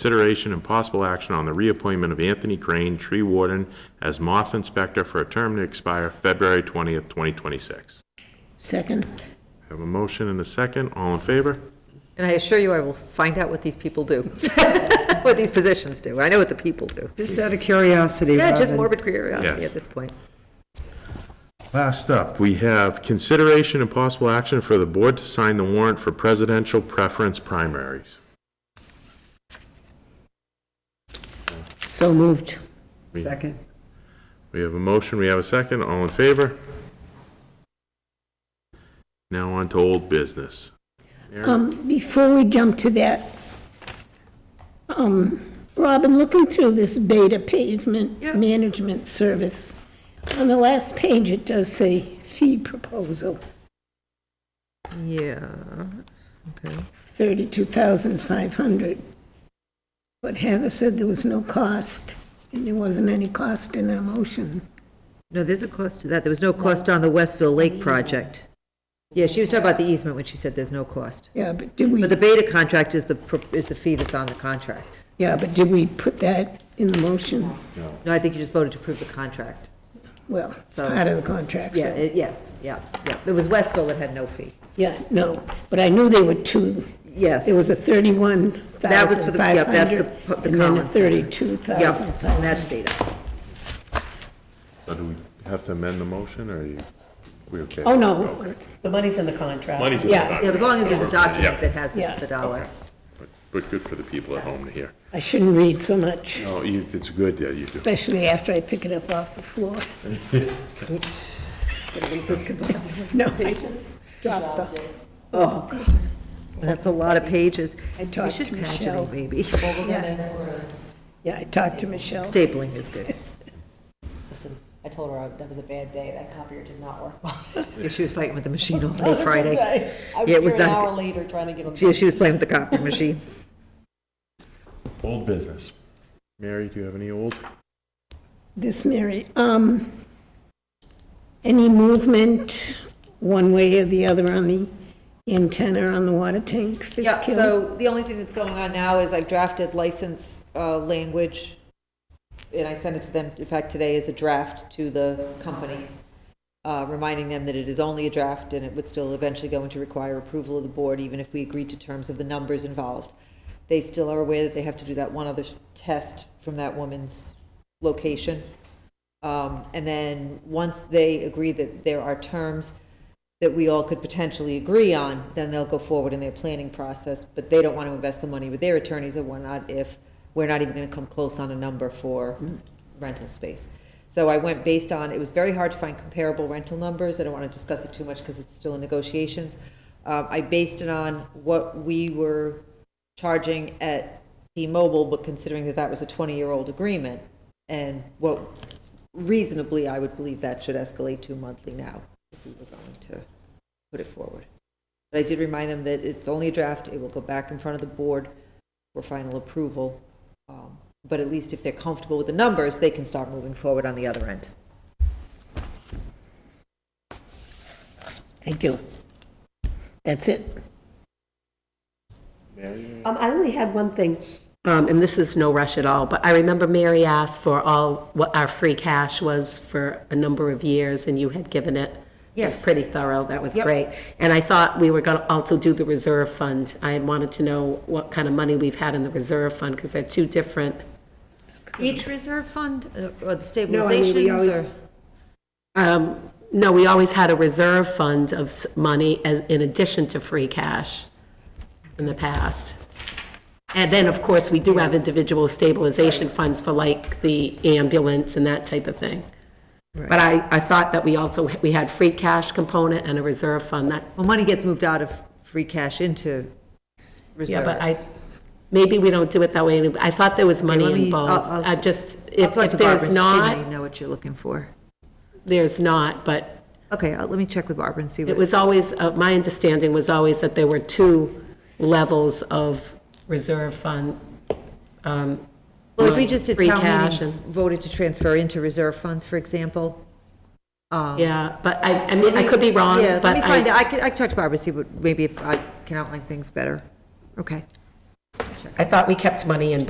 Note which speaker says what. Speaker 1: Consideration and possible action on the reappointment of Anthony Crane, tree warden, as moth inspector for a term to expire February 20th, 2026.
Speaker 2: Second,
Speaker 1: Have a motion and a second. All in favor?
Speaker 3: And I assure you, I will find out what these people do, what these positions do. I know what the people do.
Speaker 4: Just out of curiosity,
Speaker 3: Yeah, just
Speaker 4: Robin.
Speaker 3: morbid curiosity
Speaker 1: Yes.
Speaker 3: at this point.
Speaker 1: Last up, we have consideration and possible action for the board to sign the warrant for presidential preference primaries.
Speaker 2: so moved.
Speaker 4: Second.
Speaker 1: We have a motion, we have a second, all in favor? Now on to old business.
Speaker 2: Um, Before we jump to that, um, Robin, looking through this beta pavement
Speaker 3: Yeah.
Speaker 2: management service, on the last page, it does say fee proposal,
Speaker 3: Yeah, okay.
Speaker 2: 32500 But Heather said there was no cost, and there wasn't any cost in our motion.
Speaker 3: No, there's a cost to that. There was no cost on the Westville Lake project. Yeah, she was talking about the easement when she said there's no cost.
Speaker 2: Yeah, but did we,
Speaker 3: But the beta contract is the, pro- is the fee that's on the contract.
Speaker 2: yeah, but did we put that in the motion?
Speaker 3: No, I think you just voted to approve the contract.
Speaker 2: Well, it's
Speaker 3: So-
Speaker 2: part of the contract, so.
Speaker 3: Oh. Yeah, it- yeah, yeah, yeah. It was Westville that had no fee.
Speaker 2: Yeah, no, but I knew there were two.
Speaker 3: Yes.
Speaker 2: There was a thirty-one
Speaker 3: That was for
Speaker 2: thousand
Speaker 3: the- yeah,
Speaker 2: five
Speaker 3: that's the
Speaker 2: hundred,
Speaker 3: pu- the
Speaker 2: and then a
Speaker 3: Collins Center.
Speaker 2: thirty-two
Speaker 3: Yeah,
Speaker 2: thousand
Speaker 3: and
Speaker 2: five
Speaker 3: that's
Speaker 2: hundred.
Speaker 3: data.
Speaker 1: So Uh, do we have to amend the motion, or are you, we okay?
Speaker 2: Oh, no,
Speaker 4: The money's in the contract.
Speaker 1: Money's in the
Speaker 2: Yeah.
Speaker 1: document.
Speaker 3: Yeah, as long as there's a document
Speaker 1: Yeah.
Speaker 3: that has the
Speaker 2: Yeah.
Speaker 3: the dollar.
Speaker 1: Okay. But- But good for the people at home to hear.
Speaker 2: I shouldn't read so much,
Speaker 1: No, Oh, you, it's good that you do.
Speaker 2: especially after I pick it up off the floor. No, I dropped the, oh, God.
Speaker 3: That's a lot of pages.
Speaker 2: I talked to
Speaker 3: You should patch it
Speaker 2: Michelle.
Speaker 3: in, maybe.
Speaker 2: yeah. Yeah, I talked to Michelle.
Speaker 3: Stapling is good.
Speaker 5: Listen, I told her I- that was a bad day, that copier did not work.
Speaker 3: Yeah, She was fighting with the machine all day Friday.
Speaker 5: I was
Speaker 3: Yeah, it was
Speaker 5: here an
Speaker 3: not-
Speaker 5: hour later trying to get them.
Speaker 3: She, she was playing with the copy machine.
Speaker 1: Old business. Mary, do you have any old?
Speaker 2: This, Mary, um, any movement, one way or the other, on the antenna on the water tank,
Speaker 3: Yeah,
Speaker 2: Fiskill?
Speaker 3: so the only thing that's going on now is I've drafted license uh, language, and I sent it to them, in fact, today is a draft to the company, uh, reminding them that it is only a draft, and it would still eventually go into require approval of the board, even if we agreed to terms of the numbers involved. They still are aware that they have to do that one other test from that woman's location. Um, And then, once they agree that there are terms that we all could potentially agree on, then they'll go forward in their planning process, but they don't want to invest the money with their attorneys or whatnot if we're not even going to come close on a number for rental space. So I went based on, it was very hard to find comparable rental numbers, I don't want to discuss it too much because it's still in negotiations. Uh, I based it on what we were charging at T-Mobile, but considering that that was a 20-year-old agreement, and what reasonably, I would believe that should escalate to monthly now, if we were going to put it forward. But I did remind them that it's only a draft, it will go back in front of the board for final approval. Um, But at least if they're comfortable with the numbers, they can start moving forward on the other end.
Speaker 2: Thank you. That's it.
Speaker 4: Um, I only had one thing, um, and this is no rush at all, but I remember Mary asked for all, what our free cash was for a number of years, and you had given it.
Speaker 3: Yes.
Speaker 4: Pretty thorough, that was
Speaker 3: Yep.
Speaker 4: great. And I thought we were gonna also do the reserve fund. I had wanted to know what kind of money we've had in the reserve fund, because they're two different.
Speaker 3: Each reserve fund, uh, or the
Speaker 4: always- Um, no, we always had a reserve fund of s- money as, in addition to free cash in the past. And then, of course, we do have individual stabilization funds for like the ambulance and that type of thing. But I, I thought that we also, we had free cash component and a reserve fund that,
Speaker 3: Well, money gets moved out of free cash into
Speaker 4: yeah,
Speaker 3: reserves.
Speaker 4: but I, maybe we don't do it that way. And I thought there was
Speaker 3: let
Speaker 4: money
Speaker 3: me-
Speaker 4: involved.
Speaker 3: I'll- I'll-
Speaker 4: I just,
Speaker 3: I'll
Speaker 4: if
Speaker 3: talk
Speaker 4: if
Speaker 3: to Barbara,
Speaker 4: there's
Speaker 3: she
Speaker 4: not,
Speaker 3: may know what you're looking for.
Speaker 4: there's not, but
Speaker 3: Okay, I'll- let me check with Barbara and see what.
Speaker 4: It was always, uh, my understanding was always that there were two levels of reserve fund. um,
Speaker 3: Well, if we just did
Speaker 4: free
Speaker 3: town
Speaker 4: cash
Speaker 3: meeting, voted to transfer into reserve funds, for example.
Speaker 4: and- Yeah, but I, I mean, I could be wrong,
Speaker 3: Yeah, let
Speaker 4: but
Speaker 3: me find out,
Speaker 4: I,
Speaker 3: I can, I can talk to Barbara, see what, maybe if I can outline things better. Okay.
Speaker 4: I thought we kept money in